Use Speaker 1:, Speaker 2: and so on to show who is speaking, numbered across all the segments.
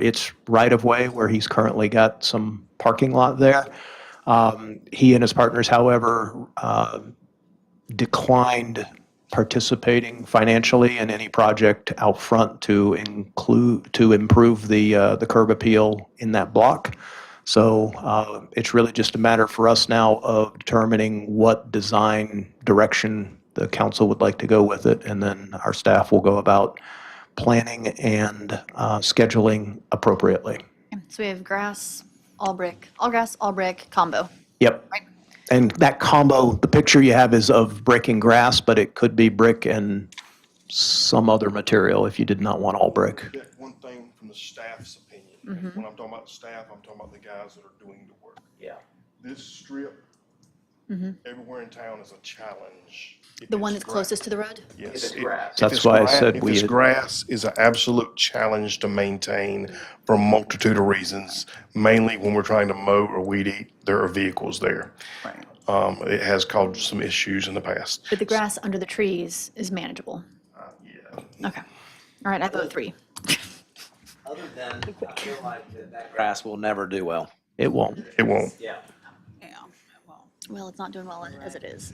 Speaker 1: it's right of way where he's currently got some parking lot there. Um, He and his partners, however, uh, declined participating financially in any project out front to include, to improve the, uh, the curb appeal in that block. So uh, it's really just a matter for us now of determining what design direction the council would like to go with it, and then our staff will go about planning and uh, scheduling appropriately.
Speaker 2: So we have grass, all brick, all grass, all brick combo.
Speaker 1: Yep.
Speaker 2: Right.
Speaker 1: And that combo, the picture you have is of brick and grass, but it could be brick and some other material if you did not want all brick.
Speaker 3: get one thing from the staff's opinion. And
Speaker 2: Mm-hmm.
Speaker 3: When I'm talking about staff, I'm talking about the guys that are doing the work.
Speaker 4: Yeah.
Speaker 3: This strip, everywhere in town is a challenge. If
Speaker 2: Mm-hmm. The one
Speaker 3: it's
Speaker 2: that's closest to the road?
Speaker 3: gra- Yes.
Speaker 4: If it's
Speaker 3: If-
Speaker 4: grass.
Speaker 3: if
Speaker 1: That's
Speaker 3: it's
Speaker 1: why I
Speaker 3: gra-
Speaker 1: said
Speaker 3: if
Speaker 1: we
Speaker 3: it's
Speaker 1: had-
Speaker 3: grass is an absolute challenge to maintain for a multitude of reasons, mainly when we're trying to mow or weed eat, there are vehicles there. Um, it has caused some issues in the past.
Speaker 2: But the grass under the trees is manageable. Okay. All right, I vote three.
Speaker 4: Other than, I feel like that that grass will never do well.
Speaker 1: It won't.
Speaker 3: It won't.
Speaker 4: Yeah.
Speaker 5: Yeah, well,
Speaker 2: Well, it's not doing well as it is.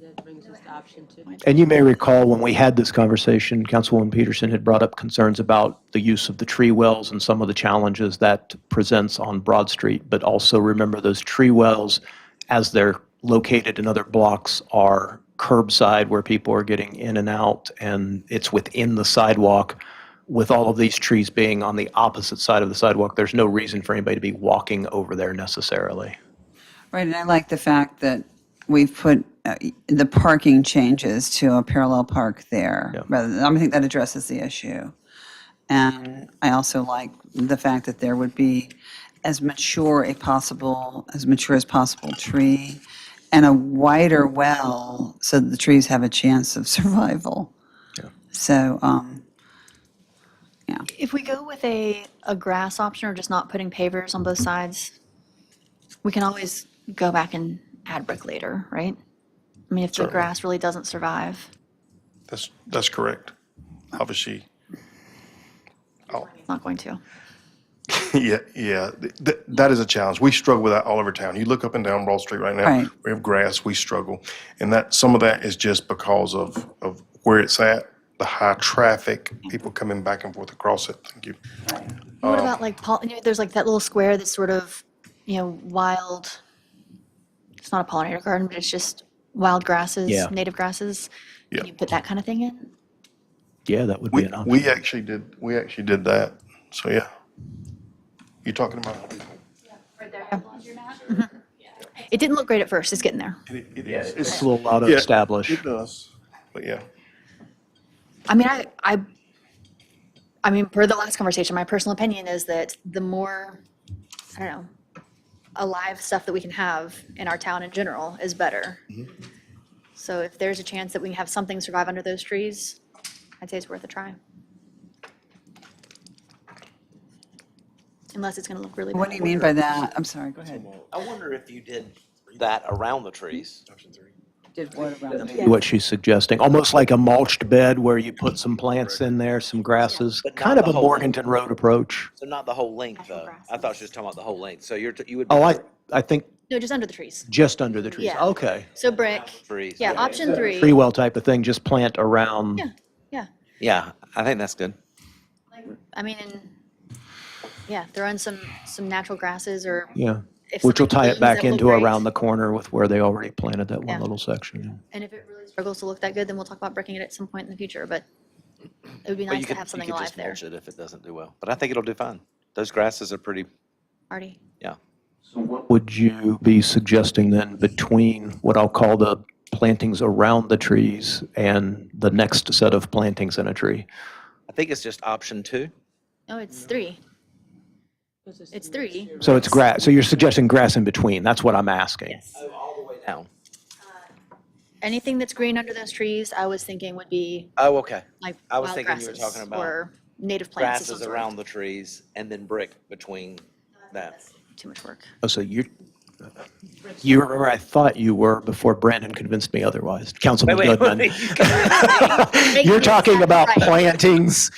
Speaker 5: that brings us to option two.
Speaker 1: And you may recall when we had this conversation, Councilwoman Peterson had brought up concerns about the use of the tree wells and some of the challenges that presents on Broad Street. But also remember those tree wells, as they're located in other blocks, are curbside where people are getting in and out and it's within the sidewalk. With all of these trees being on the opposite side of the sidewalk, there's no reason for anybody to be walking over there necessarily.
Speaker 6: Right, and I like the fact that we've put uh, the parking changes to a parallel park there. Rather, than- I think that addresses the issue. And I also like the fact that there would be as mature a possible, as mature as possible tree and a wider well so that the trees have a chance of survival. So, um,
Speaker 2: If we go with a, a grass option or just not putting pavers on both sides, we can always go back and add brick later, right? I mean, if the grass really doesn't survive,
Speaker 3: That's, that's correct. Obviously,
Speaker 2: it's not going to.
Speaker 3: Yeah, yeah, th- th- that is a challenge. We struggle with that all over town. You look up and down Broad Street right now.
Speaker 6: Right.
Speaker 3: We have grass. We struggle, and that some of that is just because of of where it's at, the high traffic, people coming back and forth across it. Thank you.
Speaker 2: What about like, pol- you know, there's like that little square that's sort of, you know, wild, it's not a pollinator garden, but it's just wild grasses,
Speaker 1: Yeah.
Speaker 2: native grasses.
Speaker 3: Yeah.
Speaker 2: Can you put that kind of thing in?
Speaker 1: Yeah, that would be
Speaker 3: We
Speaker 1: an option.
Speaker 3: we actually did we actually did that. So yeah, you talking about it,
Speaker 2: It didn't look great at first, it's getting there.
Speaker 3: it
Speaker 4: Yeah,
Speaker 3: is-
Speaker 1: It's a little out of
Speaker 3: yeah,
Speaker 1: established.
Speaker 3: It does, but yeah,
Speaker 2: I mean, I, I, I mean, per the last conversation, my personal opinion is that the more, I don't know, alive stuff that we can have in our town in general is better. So if there's a chance that we can have something survive under those trees, I'd say it's worth a try. Unless it's gonna look really bad.
Speaker 6: what do you mean by that? I'm sorry, go ahead.
Speaker 4: I wonder if you did that around the trees.
Speaker 6: Did what around the-
Speaker 1: what she's suggesting, almost like a mulched bed where you put some plants in there, some grasses,
Speaker 4: But not
Speaker 1: kind of
Speaker 4: the
Speaker 1: a
Speaker 4: whole-
Speaker 1: Morganton Road approach.
Speaker 4: So not the whole length
Speaker 2: Natural
Speaker 4: though. I
Speaker 2: grasses.
Speaker 4: thought she was talking about the whole length. So you're, t- you would.
Speaker 1: Oh, I, I think
Speaker 2: No, just under the trees.
Speaker 1: just under the trees.
Speaker 2: Yeah.
Speaker 1: Okay.
Speaker 2: So brick,
Speaker 4: Trees.
Speaker 2: yeah, option
Speaker 1: Tree
Speaker 2: three,
Speaker 1: well type of thing, just plant around.
Speaker 2: Yeah. yeah.
Speaker 4: Yeah, I think that's good.
Speaker 2: I mean, and, yeah, throw in some, some natural grasses or
Speaker 1: Yeah.
Speaker 2: if
Speaker 1: Which will
Speaker 2: something
Speaker 1: tie
Speaker 2: blooms,
Speaker 1: it back
Speaker 2: that will
Speaker 1: into
Speaker 2: look great.
Speaker 1: around the corner with where they already planted that one
Speaker 2: Yeah.
Speaker 1: little section.
Speaker 2: And if it really struggles to look that good, then we'll talk about breaking it at some point in the future, but it would be
Speaker 4: But you
Speaker 2: nice to
Speaker 4: could-
Speaker 2: have
Speaker 4: you
Speaker 2: something
Speaker 4: could
Speaker 2: alive
Speaker 4: just
Speaker 2: there.
Speaker 4: mulch it If it doesn't do well, but I think it'll do fine. Those grasses are pretty,
Speaker 2: Artie?
Speaker 4: yeah.
Speaker 1: Would you be suggesting then between what I'll call the plantings around the trees and the next set of plantings in a tree?
Speaker 4: I think it's just option two.
Speaker 2: No, Oh, it's three. It's three.
Speaker 1: So it's grass, so you're suggesting grass in between, that's what I'm asking.
Speaker 4: Oh, All the way down.
Speaker 2: Anything that's green under those trees, I was thinking would be
Speaker 4: Oh, okay.
Speaker 2: like
Speaker 4: I was
Speaker 2: wild
Speaker 4: thinking you were
Speaker 2: grasses
Speaker 4: talking about
Speaker 2: or native plants. of some
Speaker 4: Grasses
Speaker 2: sort.
Speaker 4: around the trees and then brick between that.
Speaker 2: Too much work.
Speaker 1: Oh, so you're, you were where I thought you were before Brandon convinced me otherwise. Councilman
Speaker 4: Wait, wait,
Speaker 1: Goodman.
Speaker 4: wait.
Speaker 1: You're talking about
Speaker 2: Right.
Speaker 1: plantings,